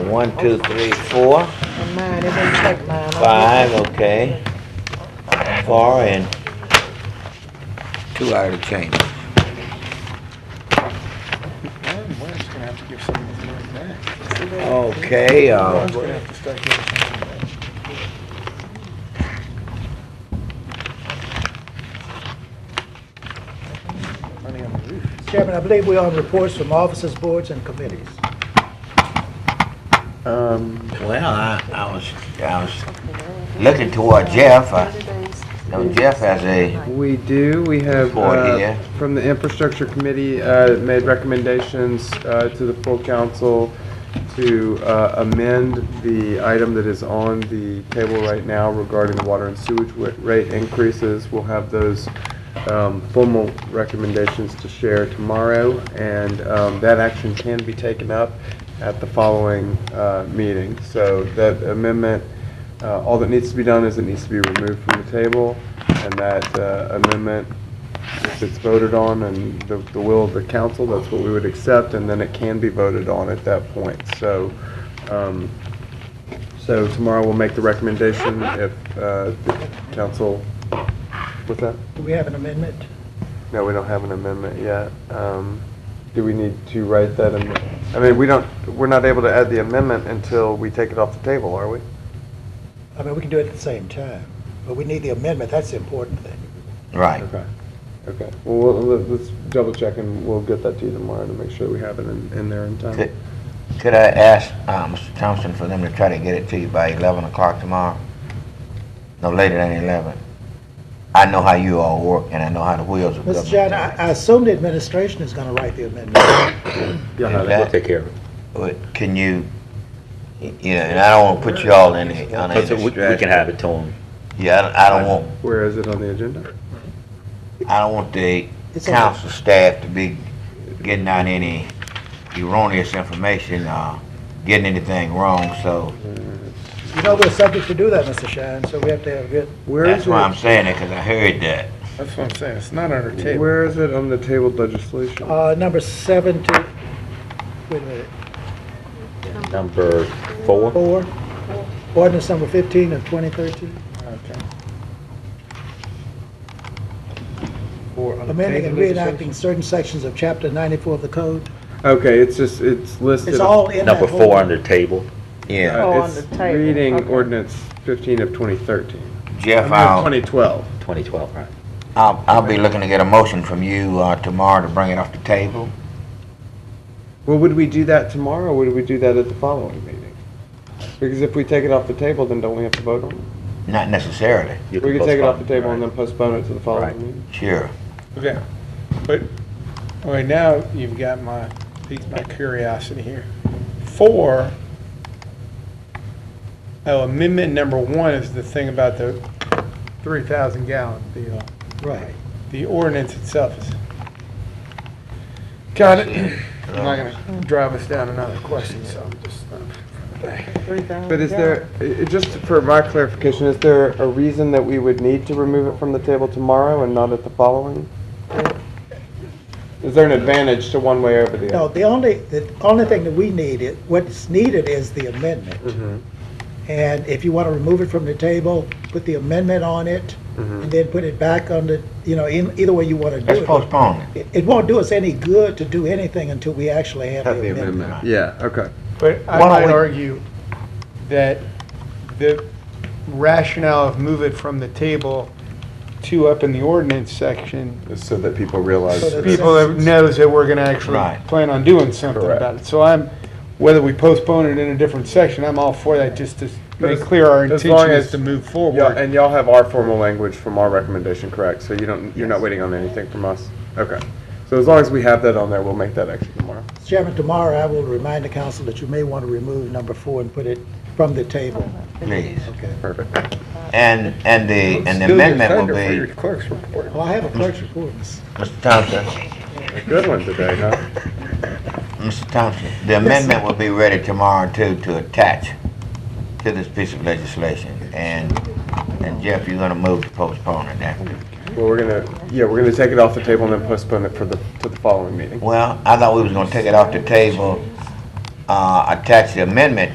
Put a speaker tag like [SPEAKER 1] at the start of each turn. [SPEAKER 1] One, two, three, four,
[SPEAKER 2] On mine, it didn't take mine.
[SPEAKER 1] five, okay. Four and two hours of change.
[SPEAKER 3] Warren Wynn's gonna have to give some of his money back.
[SPEAKER 1] Okay, uh,
[SPEAKER 3] Warren's gonna have to start giving some money back. Money on the roof.
[SPEAKER 4] Chairman, I believe we are on reports from officers, boards, and committees.
[SPEAKER 3] Um,
[SPEAKER 1] well, I, I was, I was looking toward Jeff. I know Jeff has a,
[SPEAKER 5] We do. We have
[SPEAKER 1] Report,
[SPEAKER 5] uh,
[SPEAKER 1] yeah.
[SPEAKER 5] from the infrastructure committee uh, made recommendations uh, to the full council to uh, amend the item that is on the table right now regarding the water and sewage wa- rate increases. We'll have those um, formal recommendations to share tomorrow, and um, that action can be taken up at the following uh, meeting. So that amendment uh, All that needs to be done is it needs to be removed from the table, and that uh, amendment, if it's voted on and the the will of the council, that's what we would accept, and then it can be voted on at that point. So, um, so tomorrow we'll make the recommendation if uh, the council, what's that?
[SPEAKER 4] Do we have an amendment?
[SPEAKER 5] No, we don't have an amendment yet. Um, Do we need to write that? am- I mean, we don't, we're not able to add the amendment until we take it off the table, are we?
[SPEAKER 4] I mean, we can do it at the same time, but we need the amendment, that's the important thing.
[SPEAKER 1] right.
[SPEAKER 5] Okay, okay. Well, we'll- let- let's double check and we'll get that to you tomorrow to make sure we have it in, in there in time.
[SPEAKER 1] Could could I ask, uh, Mr. Thompson for them to try to get it to you by eleven o'clock tomorrow? No later than eleven. I know how you all work and I know how the wheels of
[SPEAKER 4] Mr.
[SPEAKER 1] government.
[SPEAKER 4] John, I I assume the administration is going to write the amendment.
[SPEAKER 1] Is
[SPEAKER 5] Yeah,
[SPEAKER 1] that-
[SPEAKER 6] We'll take care of it.
[SPEAKER 1] But can you, y- you know, and I don't wanna put you all in, the- on any
[SPEAKER 6] That's it, we- We can
[SPEAKER 1] stress.
[SPEAKER 6] have it to them.
[SPEAKER 1] Yeah, I don't- I don't want,
[SPEAKER 5] where is it on the agenda?
[SPEAKER 1] I don't want the
[SPEAKER 4] It's on the-
[SPEAKER 1] council staff to be getting out any erroneous information, uh, getting anything wrong, so
[SPEAKER 4] You know, we're subject to do that, Mr. Shine, so we have to have a good,
[SPEAKER 5] Where
[SPEAKER 1] that's
[SPEAKER 5] is
[SPEAKER 1] why I'm
[SPEAKER 5] it,
[SPEAKER 1] saying it, cause I heard that.
[SPEAKER 3] that's what I'm saying, it's not on our table.
[SPEAKER 5] where is it on the tabled legislation?
[SPEAKER 2] Oh,
[SPEAKER 4] uh, number seven to, wait a minute,
[SPEAKER 6] Number four,
[SPEAKER 4] four, ordinance number 15 of 2013,
[SPEAKER 3] Okay.
[SPEAKER 4] amending and reenacting certain sections of Chapter 94 of the code.
[SPEAKER 5] Okay, it's just, it's listed.
[SPEAKER 4] It's all in that
[SPEAKER 6] number
[SPEAKER 4] whole-
[SPEAKER 6] four under table.
[SPEAKER 1] Yeah,
[SPEAKER 2] Oh,
[SPEAKER 5] Uh,
[SPEAKER 2] on
[SPEAKER 5] it's
[SPEAKER 2] the table,
[SPEAKER 5] Reading
[SPEAKER 2] okay.
[SPEAKER 5] ordinance fifteen of twenty thirteen.
[SPEAKER 1] Jeff, I'll.
[SPEAKER 5] Twenty twelve.
[SPEAKER 6] 2012, right.
[SPEAKER 1] I'll, I'll be looking to get a motion from you uh, tomorrow to bring it off the table.
[SPEAKER 5] Well, would we do that tomorrow or would we do that at the following meeting? Because if we take it off the table, then don't we have to vote on it?
[SPEAKER 1] Not necessarily,
[SPEAKER 6] You
[SPEAKER 5] We could take it off the
[SPEAKER 6] postpone,
[SPEAKER 5] table and
[SPEAKER 6] right.
[SPEAKER 5] then postpone it to the
[SPEAKER 6] Right.
[SPEAKER 5] following meeting.
[SPEAKER 1] sure.
[SPEAKER 3] Okay, but, okay, now you've got my, piqued my curiosity here. Four, oh, amendment number one is the thing about the three thousand gallon deal.
[SPEAKER 4] Right.
[SPEAKER 3] The ordinance itself is. Got it. I'm not gonna drive us down another question, so I'm just. uh,
[SPEAKER 2] Uh,
[SPEAKER 5] But is there, i- i- just for my clarification, is there a reason that we would need to remove it from the table tomorrow and not at the following? Is there an advantage to one way over the
[SPEAKER 4] No,
[SPEAKER 5] other?
[SPEAKER 4] the only, the only thing that we need, is what's needed is the amendment. And if you want to remove it from the table, put the amendment on it, and then put it back on the, you know, in, either way you want to do
[SPEAKER 1] Let's
[SPEAKER 4] it.
[SPEAKER 1] postpone it.
[SPEAKER 4] It- It won't do us any good to do anything until we actually have the amendment.
[SPEAKER 5] Yeah, okay.
[SPEAKER 3] But
[SPEAKER 1] Why
[SPEAKER 3] I
[SPEAKER 1] don't
[SPEAKER 3] might
[SPEAKER 1] we-
[SPEAKER 3] argue that the rationale of move it from the table to up in the ordinance section,
[SPEAKER 5] So that people realize.
[SPEAKER 4] So that-
[SPEAKER 3] people that knows that we're gonna actually
[SPEAKER 1] Right.
[SPEAKER 3] plan on doing something about it. So I'm, whether we postpone it in a different section, I'm all for that, just to make
[SPEAKER 5] as-
[SPEAKER 3] clear our
[SPEAKER 5] as
[SPEAKER 3] intention
[SPEAKER 5] long
[SPEAKER 3] is
[SPEAKER 5] as-
[SPEAKER 3] to move
[SPEAKER 5] Yeah,
[SPEAKER 3] forward.
[SPEAKER 5] and y'all have our formal language from our recommendation, correct? So you don't, you're not waiting on anything from us? Okay. So as long as we have that on there, we'll make that action tomorrow.
[SPEAKER 4] Chairman, tomorrow I will remind the council that you may want to remove number four and put it from the table.
[SPEAKER 1] Please.
[SPEAKER 5] Perfect.
[SPEAKER 1] And, and the, and the amendment will be,
[SPEAKER 3] Clerk's report.
[SPEAKER 4] Well, I have a clerk's report, Mr.
[SPEAKER 1] Mr. Thompson,
[SPEAKER 5] A Good one today, huh?
[SPEAKER 1] Mr. Thompson, the amendment will be ready tomorrow too to attach to this piece of legislation. And, and Jeff, you're gonna move to postpone it now.
[SPEAKER 5] Well, we're gonna, yeah, we're gonna take it off the table and then postpone it for the, to the following meeting.
[SPEAKER 1] Well, I thought we was gonna take it off the table, uh, attach the amendment